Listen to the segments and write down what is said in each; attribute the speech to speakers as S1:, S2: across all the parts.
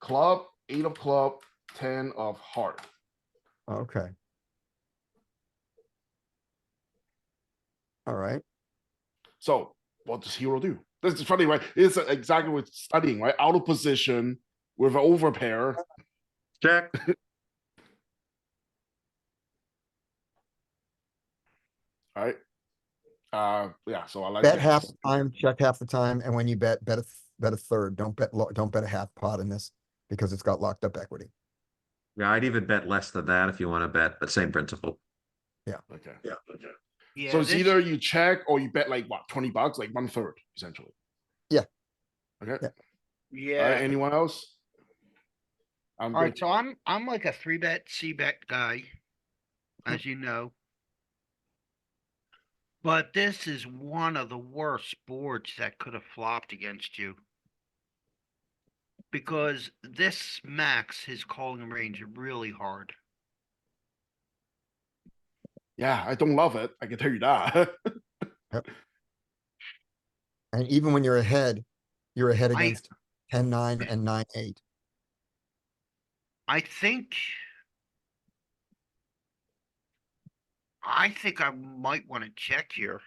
S1: club, eight of club, ten of heart.
S2: Okay. All right,
S1: So what does hero do? This is funny, right? It's exactly what studying, right? Out of position with an overpair.
S3: Check.
S1: Uh, yeah, so I like.
S2: bet
S1: this.
S2: half the time, check half the time, and when you bet, bet a, th- bet a third, don't bet, lo- don't bet a half pot in this, because it's got locked up equity.
S3: Yeah, I'd even bet less than that if you want to bet, but same principle.
S1: Okay.
S3: Yeah.
S4: Yeah,
S1: So it's
S4: this-
S1: either you check or you bet like what, twenty bucks, like one third essentially.
S2: Yeah.
S1: Okay,
S2: Yeah.
S1: All right,
S4: Yeah,
S1: anyone else? I'm
S4: alright,
S1: good.
S4: so I'm, I'm like a three bet, C bet guy. As you know. But this is one of the worst boards that could have flopped against you. Because this smacks his calling range really hard.
S1: Yeah, I don't love it. I can tell you that.
S2: And even when you're ahead, you're ahead
S4: I-
S2: against ten, nine, and nine, eight.
S4: I think. I think I might wanna check here,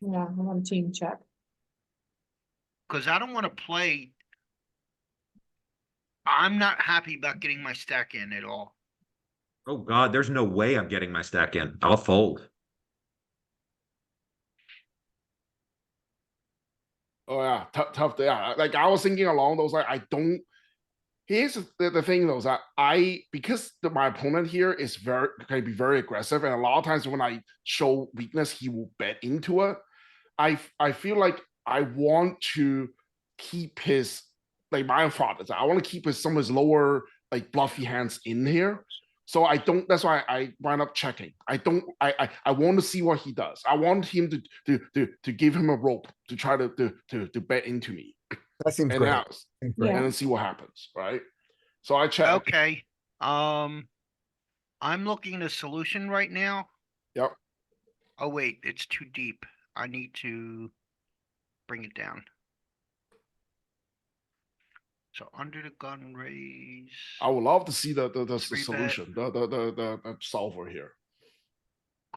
S5: Yeah, I want to team check.
S4: cause I don't wanna play. I'm not happy about getting my stack in at all.
S3: Oh god, there's no way I'm getting my stack in. I'll fold.
S1: Oh yeah, tough, tough. day. Yeah, like I was thinking along those. Like I don't. Here's the- the, the thing though is that I because the, my opponent here is very can be very aggressive, and a lot of times when I show weakness, he will bet into it. I f- I feel like I want to keep his like my thought is I want to keep his some of his lower like bluffy hands in here. So I don't. That's why I wind up checking. I don't. I I, I want to see what he does. I want him to to to to give him a rope to try to to to, to bet into me
S2: That seems
S1: and
S2: great.
S1: out
S2: Seems great.
S1: and then see what happens. Right. So I check.
S4: Okay, um, I'm looking at a solution right now.
S1: Yep.
S4: Oh wait, it's too deep. I need to bring it down. So under the gun raise.
S1: I would love to see the the, the, the
S4: Three bet.
S1: solution, the the, the the the solver here.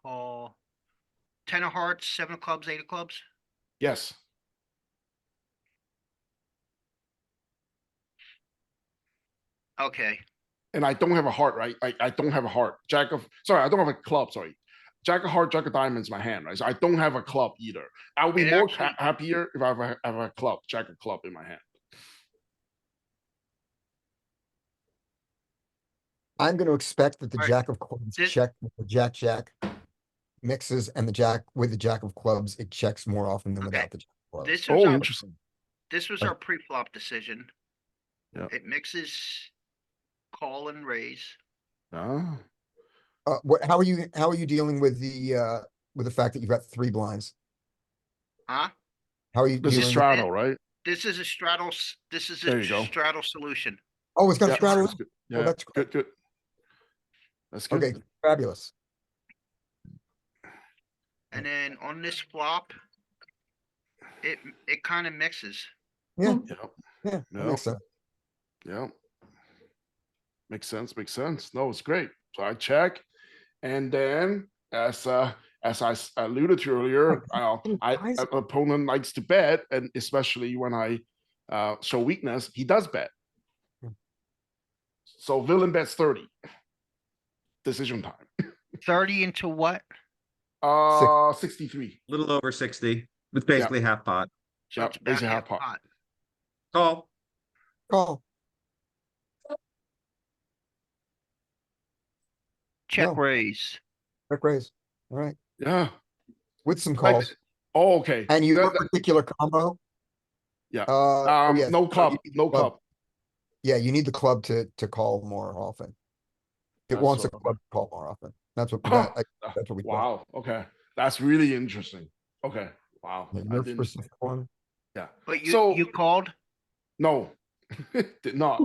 S4: call ten of hearts, seven of clubs, eight of clubs.
S1: Yes.
S4: Okay,
S1: And I don't have a heart. Right. I, I don't have a heart. Jack of sorry. I don't have a club. Sorry. Jack of heart, jack of diamonds, my hand, right? So I don't have a club either. I would be
S4: It
S1: more
S4: actually-
S1: ha- happier if I have a, have a club, jack of club in my hand.
S2: I'm gonna expect that the
S4: Alright,
S2: jack of clubs
S4: this-
S2: check, with the jack, jack mixes and the jack with the jack of clubs, it checks more often than
S4: Okay.
S2: without the. jack of clubs.
S4: this
S1: Oh,
S4: was our,
S1: interesting.
S4: this was
S2: uh,
S4: our pre-flop decision.
S1: Yeah.
S4: It mixes call and raise.
S1: Ah.
S2: Uh, what, how are you, how are you dealing with the, uh, with the fact that you've got three blinds?
S4: Huh?
S2: How are you
S1: This
S2: dealing?
S1: is
S2: with-
S1: straddle, right?
S4: This is a straddle, s- this is
S1: There
S4: a
S1: you go.
S4: straddle solution.
S2: Oh, it's got a
S1: Yeah,
S2: straddle.
S1: that's good.
S2: Oh,
S1: Yeah,
S2: that's
S1: good, good. That's good.
S2: Okay, fabulous.
S4: And then on this flop, it, it kind of mixes.
S2: Yeah,
S1: Yeah,
S2: yeah. that
S1: No.
S2: makes sense.
S1: yeah. Makes sense, makes sense. No, it's great. So I check. And then as uh as I s- alluded to earlier, I'll,
S5: fucking
S1: I
S5: guys.
S1: a- opponent likes to bet, and especially when I uh show weakness, he does bet.
S2: Yeah.
S1: So villain bets 30. Decision time.
S4: Thirty into what?
S1: Uh 63.
S3: Little over sixty, with basically half pot.
S4: So
S1: Yeah,
S4: it's about
S1: basically half
S4: half
S1: pot.
S4: pot.
S3: Call.
S2: Call.
S4: Check
S2: No.
S4: raise.
S2: Check raise. All right,
S1: Yeah.
S2: with some
S1: Like-
S2: calls.
S1: Oh, okay.
S2: And your
S1: That- that-
S2: particular combo?
S1: Yeah,
S2: Uh, oh,
S1: um
S2: yes,
S1: no
S2: you
S1: club,
S2: need the
S1: no club.
S2: Yeah, you need the club to, to call more often. It
S1: That's
S2: wants a
S1: what I'm-
S2: club to call more often. That's what,
S1: Oh,
S2: that- I-
S1: uh,
S2: that's what we.
S1: Wow,
S2: thought.
S1: okay. That's really interesting. Okay, wow.
S2: Yeah,
S1: I
S2: your
S1: didn't-
S2: specific one.
S4: But you,
S1: So-
S4: you called?
S1: No, did not,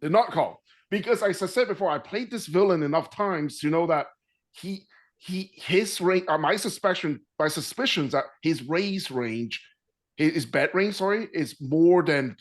S1: did not call. Because as I said before, I played this villain enough times to know that he, he, his range, uh, my suspicion, my suspicions that his raise range, his, his bet range, sorry, is more than